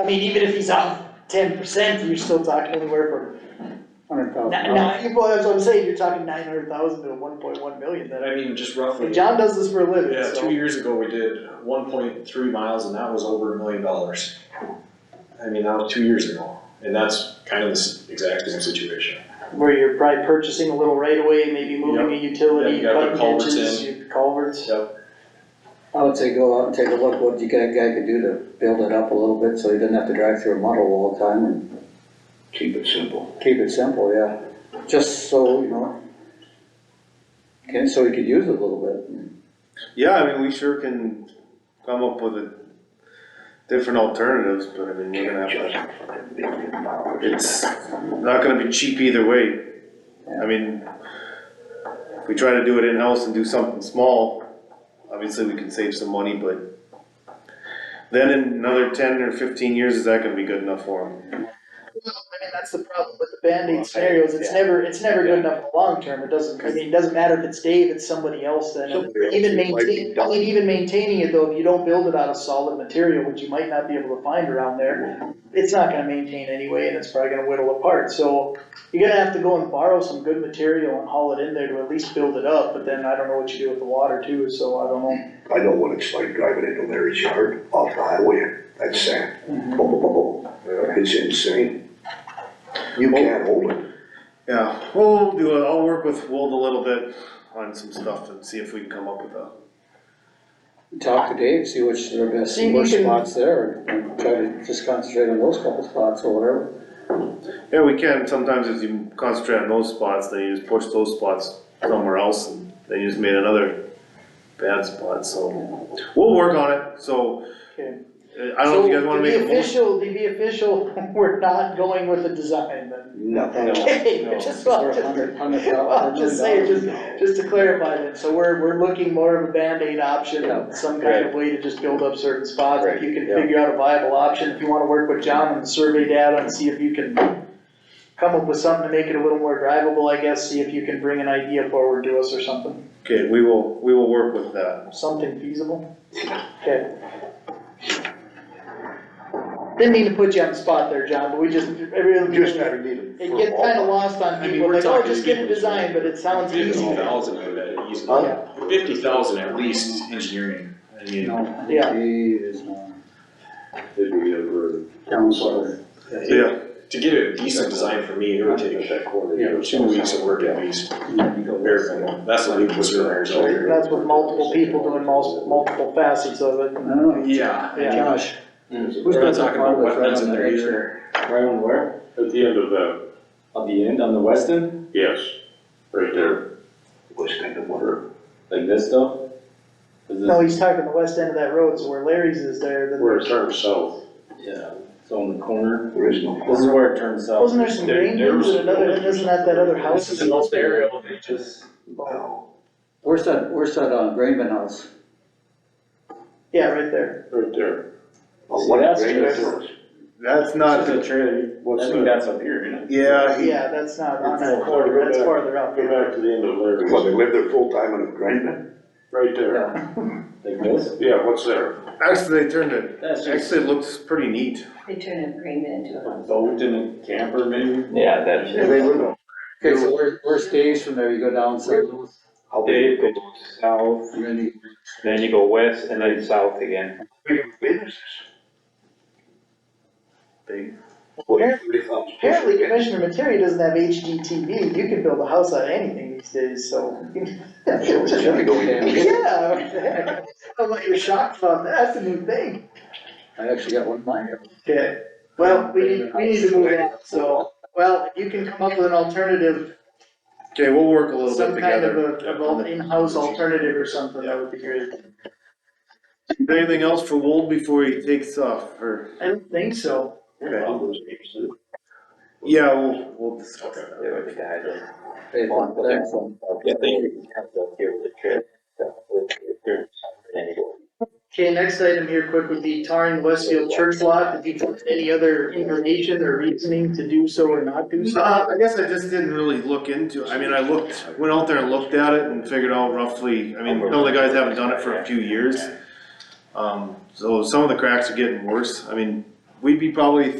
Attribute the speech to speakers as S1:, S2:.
S1: I mean, even if he's out ten percent, you're still talking anywhere
S2: hundred
S1: from,
S2: thousand.
S1: nine, nine, well, that's what I'm saying, you're talking nine hundred thousand to one point one million
S3: And
S1: that I,
S3: I mean, just
S1: and
S3: roughly,
S1: John does this for a living,
S3: yeah, two
S1: so.
S3: years ago, we did one point three miles and that was over a million dollars. I mean, that was two years ago, and that's kind of the s- exact same situation.
S1: Where you're probably purchasing a little right away, maybe moving a utility,
S3: Yeah, you gotta put
S1: cutting
S3: culverts
S1: ditches, you- culverts.
S2: I would say go out and take a look what you guy, guy could do to build it up a little bit, so he doesn't have to drive through a muddle all the time and
S4: Keep it simple.
S2: keep it simple, yeah. Just so, you know. Okay, so he could use it a little bit.
S5: Yeah, I mean, we sure can come up with a different alternatives, but I mean, we're gonna have to,
S4: Just for a million dollars.
S5: it's not gonna be cheap either way. I mean, if we try to do it in-house and do something small, obviously we can save some money, but then in another ten or fifteen years, is that gonna be good enough for them?
S1: I mean, that's the problem with the Band-Aid scenarios, it's never, it's never good enough in the long term, it doesn't, I mean, it doesn't matter if it's Dave, it's somebody else then. And
S4: Somebody else
S1: Even
S4: who might be
S1: maintain, I mean, even maintaining it though, if you don't build it out of solid material, which you might not be able to find around there, it's not gonna maintain anyway, and it's probably gonna whittle apart, so you're gonna have to go and borrow some good material and haul it in there to at least build it up, but then I don't know what you do with the water too, so I don't know.
S4: I know what it's like driving into Larry's yard off the highway, that's sad. Boom, boom, boom, boom. It's insane. You can't hold it.
S5: Yeah, we'll do it, I'll work with Wold a little bit on some stuff and see if we can come up with a
S2: Talk to Dave, see which are the best,
S1: See if
S2: worst
S1: you can-
S2: spots there, and try to just concentrate on those couple spots or whatever.
S5: Yeah, we can, sometimes if you concentrate on those spots, then you just push those spots somewhere else, and then you just made another bad spot, so. We'll work on it, so,
S1: Okay.
S5: uh, I don't know if you guys
S1: So,
S5: wanna
S1: to
S5: make
S1: be
S5: a motion.
S1: Official, to be official, we're not going with the design then.
S4: Nothing.
S1: Okay,
S5: No.
S1: just,
S2: For
S1: well,
S2: a
S1: just,
S2: hundred- hundred
S1: well,
S2: thousand,
S1: I'm just saying,
S2: million
S1: just, just to clarify that, so we're, we're looking more of a Band-Aid option, some kind of way to just build up certain spots, if you can
S2: Right, yeah.
S1: figure out a viable option, if you wanna work with John on the survey data and see if you can come up with something to make it a little more drivable, I guess, see if you can bring an idea forward to us or something,
S5: Okay, we will, we will work with that.
S1: something feasible. Okay. Didn't mean to put you on the spot there, John, but we just, every other.
S4: Just gotta need it.
S1: It
S4: for
S1: gets
S4: all
S1: kinda
S4: time.
S1: lost on
S6: I mean,
S1: people,
S6: we're
S1: like, oh,
S6: talking
S1: just get a
S6: people-
S1: design, but it sounds easy.
S6: Fifty thousand of that
S1: Huh?
S6: easily, fifty thousand at least engineering, I mean,
S2: No,
S1: Yeah.
S2: he is not.
S6: it'd be over,
S2: Down south.
S5: So, yeah,
S3: To get a decent design for me, it would take
S6: that quarter,
S2: Yeah.
S6: two weeks of work at least, bare minimum, that's what we was doing ours.
S1: That's with multiple people doing multiple, multiple facets of it.
S2: I don't know.
S6: Yeah.
S1: Yeah.
S2: Josh.
S6: We're
S2: Who's
S6: not
S2: been
S6: talking about wetlands
S2: farthest
S6: in
S2: around
S6: there
S2: that
S6: either.
S7: Right on where?
S8: At the end of that,
S7: On the end, on the west end?
S8: yes, right there.
S4: Was kind of wonder.
S7: Like this though? Is
S1: No,
S7: this,
S1: he's talking the west end of that road, so where Larry's is there, then
S8: Where it
S1: there's,
S8: turns south,
S7: yeah, it's on the corner.
S4: There is no.
S7: This is where it turns out.
S1: wasn't there some
S8: There-
S1: green
S8: there
S1: things
S8: was-
S1: and another, isn't that that other house?
S7: This is an old burial, they just,
S4: No.
S2: Where's that, where's that, uh, Grainman house?
S1: Yeah, right there.
S8: right there.
S4: Well, what
S7: That's
S4: a great
S7: just-
S4: difference.
S5: that's
S7: not
S5: not,
S7: the trailer, I
S8: What's
S7: think
S8: that?
S7: that's up here, isn't it?
S5: yeah, he-
S1: Yeah, that's not on
S8: It's
S1: that
S8: all-
S1: corner,
S8: go
S1: that's
S8: back.
S1: farther up.
S8: Go back to the end of
S4: Well, they
S8: Larry's,
S4: live there full time in Grandin.
S8: right there.
S2: Yeah.
S7: Like this?
S8: Yeah, what's there?
S5: actually, they turned it,
S7: That's just
S5: actually, it looks pretty neat.
S9: They turn a agreement into a
S7: a boat and a camper maybe?
S4: Yeah, that's. They live there.
S2: Okay, so where, where stays from there, you go down south,
S4: How big?
S10: south,
S2: and then you
S10: then you go west and then south again.
S4: Businesses.
S5: Big.
S4: Well, you really thought-
S1: Apparently Commissioner Materi doesn't have HGTV, you can build a house out of anything these days, so.
S4: Gotta go in.
S1: Yeah, what the heck? I'm like, you're shocked about that, that's a new thing.
S2: I actually got one of mine.
S1: Okay, well, we need, we need to move on, so, well, you can come up with an alternative,
S5: Okay, we'll work a little bit
S1: some kind of
S5: together.
S1: a, of an in-house alternative or something, that would be great.
S5: Anything else for Wold before he takes off, or,
S1: I don't think so.
S5: okay, yeah, we'll, we'll discuss that.
S2: Hey, thanks.
S10: Yeah, they have to give the trip, so, with, with their- anyway.
S1: Okay, next item here quick would be tarring Westfield Church Lot, if you want any other information or reasoning to do so or not do so.
S5: Uh, I guess I just didn't really look into, it. I mean, I looked, went out there and looked at it and figured out roughly, I mean, some of the guys haven't done it for a few years. Um, so some of the cracks are getting worse, I mean, we'd be probably